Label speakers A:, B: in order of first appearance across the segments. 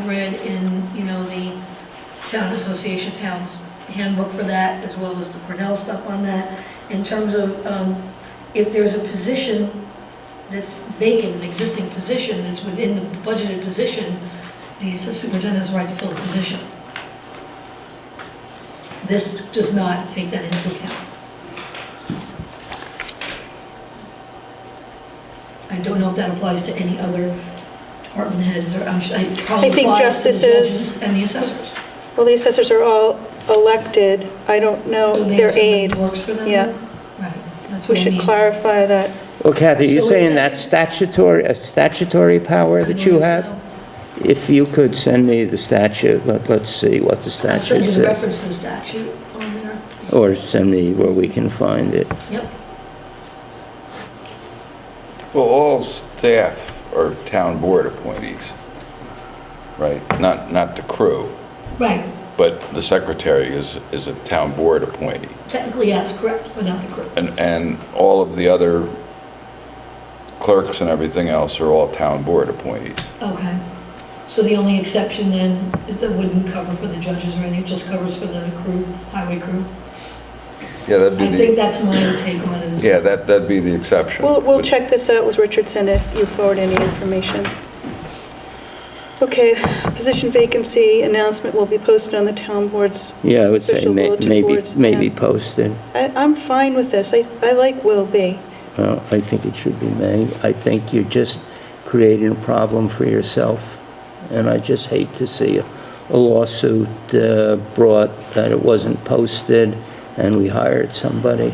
A: read in, you know, the town association, town's handbook for that, as well as the Cornell stuff on that, in terms of um, if there's a position that's vacant, an existing position, and it's within the budgeted position, the superintendent has the right to fill the position. This does not take that into account. I don't know if that applies to any other department heads, or I'm sure, it probably
B: I think
A: applies to the
B: justices-
A: judges and the assessors.
B: Well, the assessors are all elected. I don't know
A: Do Oh, they
B: their
A: have someone
B: aid.
A: who Works for them?
B: Yeah.
A: Right, that's
B: We
A: what I
B: should
A: mean.
B: clarify that.
C: Well, Kathy, you're
A: So
C: saying
A: it-
C: that's statutory, a statutory power that you have? If you could send me the statute, let, let's see what the
A: I'll
C: statute
A: send you the
C: says.
A: reference to the statute on there.
C: Or send me where we can find it.
A: Yep,
D: Well, all staff are town board appointees, right? Not, not the crew,
A: right,
D: but the secretary is, is a town board appointee.
A: technically, yes, correct, but not the clerk.
D: And, and all of the other clerks and everything else are all town board appointees.
A: Okay, so the only exception then, that wouldn't cover for the judges or anything, it just covers for the crew, highway crew?
D: Yeah, that'd
A: I
D: be
A: think
D: the,
A: that's my take on it as well.
D: yeah, that, that'd be the exception.
B: We'll, we'll
D: But-
B: check this out with Richardson if you forward any information. Okay, position vacancy announcement will be posted on the town boards.
C: Yeah, I would say
B: Official
C: may-
B: bulletin
C: maybe,
B: boards,
C: maybe
B: yeah.
C: posted.
B: I, I'm fine with this. I, I like will be.
C: Well, I think it should be made. I think you're just creating a problem for yourself, and I just hate to see a a lawsuit uh, brought that it wasn't posted and we hired somebody.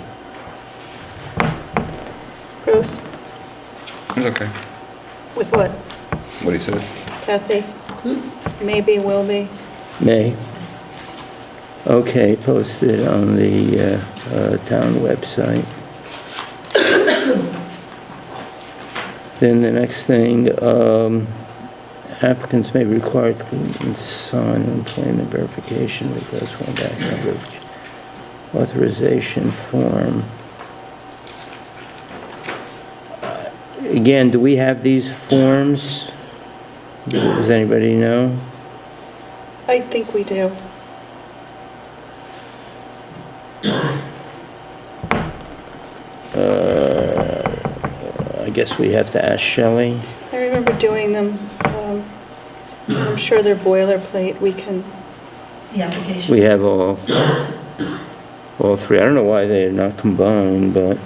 B: Gross.
D: It's okay.
B: With what,
D: What he said.
B: Kathy? Maybe will be.
C: May? Okay, posted on the uh, uh, town website. Then the next thing, um, applicants may be required to sign an employment verification request form, back number of authorization form. Again, do we have these forms? Does anybody know?
B: I think we do.
C: I guess we have to ask Shelley.
B: I remember doing them. um, I'm sure they're boilerplate. We can,
A: The application.
C: We have all, all three. I don't know why they're not combined, but,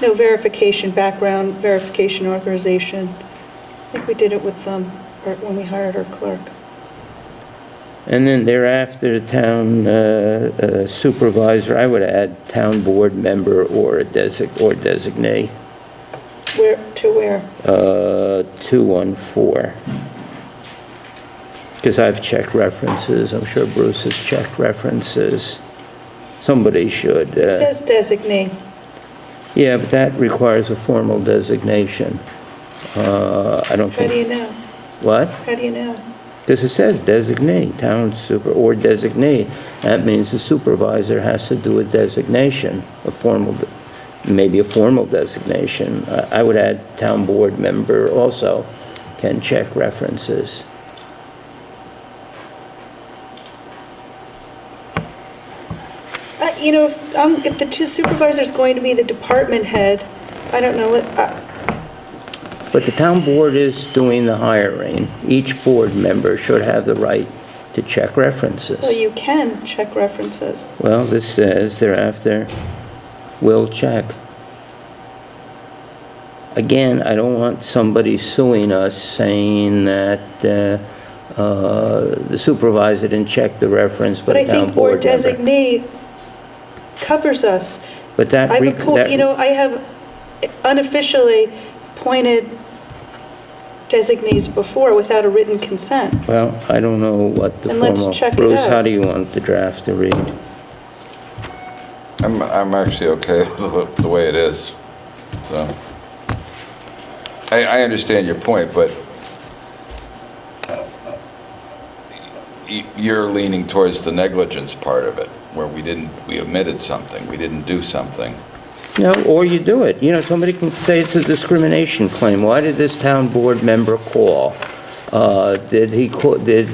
B: no verification, background verification authorization. I think we did it with them or when we hired our clerk.
C: and then thereafter, town uh, uh, supervisor, I would add town board member or a desig, or designate,
B: Where, to where?
C: uh, 214. Because I've checked references, I'm sure Bruce has checked references. Somebody should. uh,
B: It says designate.
C: Yeah, but that requires a formal designation. Uh, I don't
B: How
C: think...
B: do you know?
C: What?
B: How do you know?
C: Because it says designate, town super, or designate. That means the supervisor has to do a designation, a formal, de- maybe a formal designation. I I would add town board member also can check references.
B: Uh, You know, if, um, if the two supervisors going to be the department head, I don't know, let- uh,
C: But the town board is doing the hiring. Each board member should have the right to check references.
B: well, you can check references.
C: Well, this says thereafter, will check. Again, I don't want somebody suing us saying that uh, uh, the supervisor didn't check the reference, but
B: But I
C: a town
B: think or
C: board member.
B: designate covers us.
C: But that,
B: I've
C: re-
B: appointed, you know,
C: that-
B: I have unofficially appointed designees before without a written consent.
C: well, I don't know what the
B: Then let's
C: formal.
B: check it
C: Bruce, how
B: out.
C: do you want the draft to read?
D: I'm, I'm actually okay with the way it is, so. I, I understand your point, but y- you're leaning towards the negligence part of it, where we didn't, we omitted something, we didn't do something.
C: No, or you do it. You know, somebody can say it's a discrimination claim. Why did this town board member call? Uh, Did he, co- did